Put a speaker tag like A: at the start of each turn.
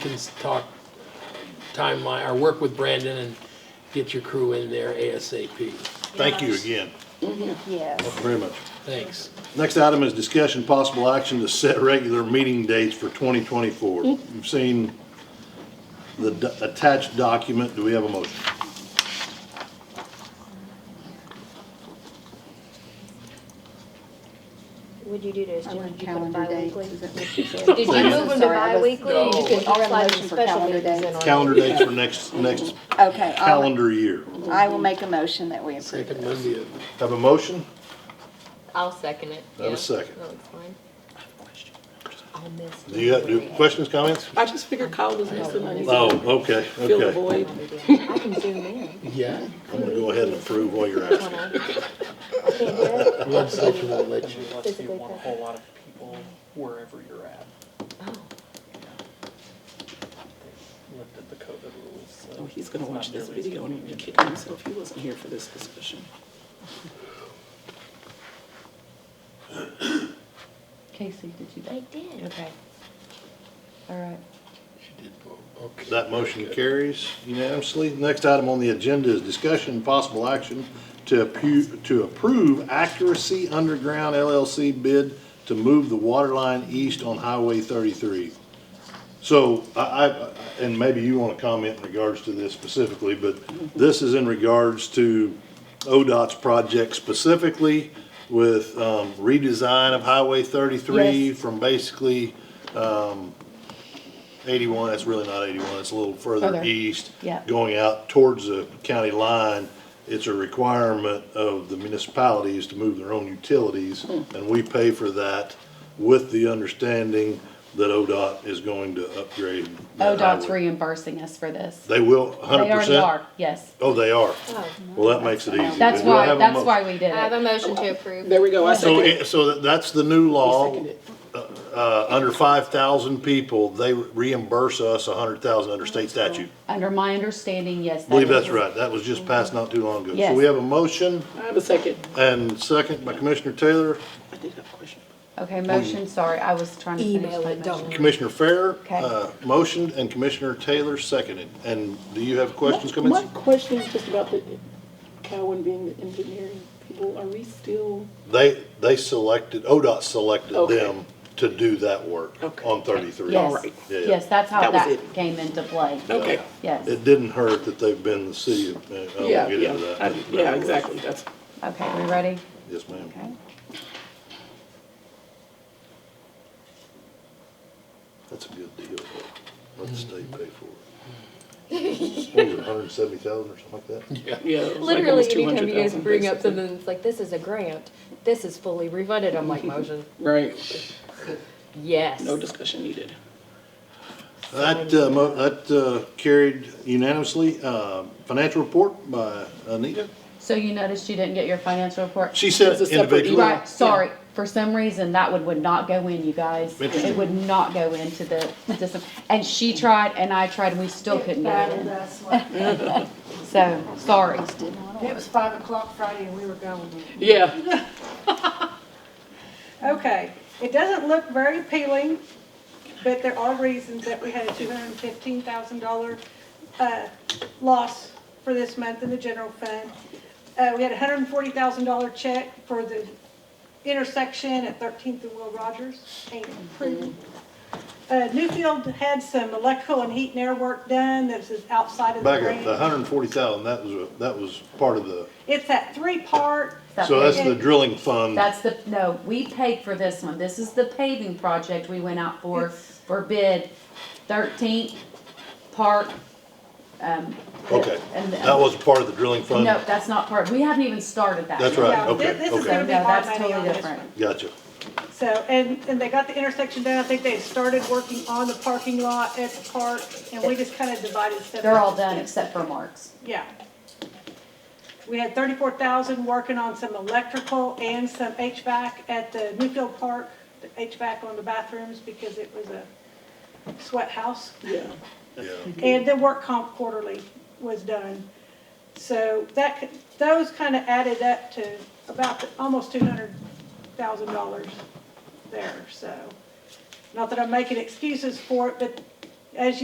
A: can talk timeline, or work with Brandon and get your crew in there ASAP.
B: Thank you again,
C: Yes.
B: very much.
A: Thanks.
B: Next item is discussion, possible action to set regular meeting dates for 2024. You've seen the d- attached document, do we have a motion?
C: Would you do this?
D: I
C: Jim?
D: want
C: Did you put it
D: calendar dates,
C: bi-weekly?
D: is that what she said?
C: Did you move them to
D: Sorry, I was-
C: bi-weekly?
A: No.
C: You could
D: I'll
C: also slide
D: motion
C: some
D: for
C: special
D: calendar
C: meetings in
D: dates.
E: Oh,
C: on it.
B: Calendar dates for next, next
D: Okay, I'll,
B: calendar year.
D: I will make a motion that we approve
A: Second
D: this.
A: Monday of,
B: Have a motion?
E: I'll second it.
B: Have a
E: yeah.
B: second.
E: That looks fine. I'll miss.
B: Do you have, do, questions, comments?
F: I just figured Kyle was missing money.
B: Oh, okay,
F: Fill the
B: okay.
F: void.
E: I can zoom in.
A: yeah,
B: I'm gonna go ahead and approve while you're at it.
C: I can't do it.
A: legislature will let you.
G: Unless you
C: Physically
G: want a
C: present.
G: whole lot of people wherever you're at. Lifted the COVID rules. so
F: Oh, he's gonna
G: it's
F: watch
G: not
F: this
G: nearly as
F: video and he'll be
G: convenient.
F: kicking himself. He wasn't here for this discussion.
D: Casey, did you?
E: I did. Okay.
D: All right.
A: She did vote. Okay.
B: That motion carries unanimously. Next item on the agenda is discussion and possible action to appu- to approve Accuracy Underground LLC bid to move the water line east on Highway 33. So I, I, and maybe you want to comment in regards to this specifically, but this is in regards to ODOT's project specifically with um, redesign of Highway 33
D: Yes.
B: from basically 81, that's really not 81, it's a little further
D: Further,
B: east.
D: yeah.
B: Going out towards the county line, it's a requirement of the municipalities to move their own utilities,
H: Hmm.
B: and we pay for that with the understanding that ODOT is going to upgrade. that
H: ODOT's
B: highway.
H: reimbursing us for this.
B: They will,
H: They
B: 100%?
H: already are, yes.
B: Oh, they are?
E: Oh.
B: Well, that makes it easy.
H: That's
B: Do I
H: why,
B: have a
H: that's
B: mo-
H: why we did
E: I have
H: it.
E: a motion to approve.
F: There we go. I
B: So,
F: second it.
B: it- so that- that's the new
F: I
B: law,
F: second it.
B: uh, under 5,000 people, they reimburse us 100,000 under state statute.
H: Under my understanding, yes. that
B: Believe that's
H: is-
B: right, that was just passed not too long ago. So
H: Yes.
B: we have a motion
F: I have a second.
B: and second by Commissioner Taylor,
F: I did have a question.
H: Okay, motion, sorry, I was trying to finish
E: Email
H: my
E: it, don't.
H: motion.
B: Commissioner Fair,
H: Okay.
B: uh, motioned, and Commissioner Taylor seconded. And do you have questions,
F: My
B: comments?
F: question is just about the Cowan being the engineering people. Are we still,
B: They, they selected, ODOT selected
F: Okay.
B: them to do that work
F: Okay.
B: on 33.
H: Yes,
F: right.
B: Yeah.
H: yes, that's how
F: That was
H: that
F: it.
H: came into play.
F: okay.
H: Yes,
B: It didn't hurt that they've been the city, of- uh, I won't
F: Yeah,
B: get
F: yeah.
B: into that.
F: I-
B: That's-
F: Yeah, exactly. That's,
H: okay, we ready?
B: Yes, ma'am.
H: Okay.
B: That's a good deal. though. Let the state pay for it. What was it, 170,000 or something like that?
F: yeah. it was like
E: Literally,
F: almost
E: anytime you guys
F: 200,000
E: bring up
F: basically.
E: something that's like, this is a grant, this is fully refunded, I'm like, motion,
F: Right.
E: yes.
F: No discussion needed.
B: That, uh, mo- that uh, carried unanimously. Uh, Financial report by Anita.
H: So you noticed you didn't get your financial report?
B: She said
F: It's a separate
B: individual.
F: email.
H: Right, sorry, for some reason, that would, would not go in, you guys.
B: Interesting.
H: It would not go into the, this- and she tried and I tried and we still couldn't get it in. So, sorry.
I: It was five o'clock Friday and we were going.
F: Yeah.
I: Okay, it doesn't look very appealing, but there are reasons that we had a two hundred and fifteen thousand dollar, uh, loss for this month in the general fund. Uh, we had a hundred and forty thousand dollar check for the intersection at Thirteenth and Will Rogers, ain't approved. Uh, Newfield had some electrical and heat and air work done, that's outside of the
B: Back up, the
I: grant.
B: 140,000, that was, a- that was part of the,
I: It's that three-part,
H: That
B: so that's the
I: paving.
B: drilling fund.
H: That's the, no, we paid for this one. This is the paving project we went out for, for bid, thirteenth park. um,
B: Okay,
H: and-
B: that was part of the drilling fund?
H: No, that's not part, we haven't even started that.
B: That's right,
I: Yeah, thi-
B: okay,
I: this is
B: okay.
I: gonna
H: No,
I: be
H: no,
I: hard
H: that's
I: money on
H: totally
I: this
H: different.
I: one.
B: Gotcha.
I: So, and, and they got the intersection done, I think they started working on the parking lot at the park, and we just kind of divided stuff.
H: They're all
I: up.
H: done except for Mark's.
I: Yeah. We had thirty-four thousand working on some electrical and some HVAC at the Newfield Park, the HVAC on the bathrooms, because it was a sweat house.
F: Yeah.
B: Yeah.
I: And the work comp quarterly was done. So that, c- those kind of added up to about, the- almost two hundred thousand dollars there, so. Not that I'm making excuses for it, but as you.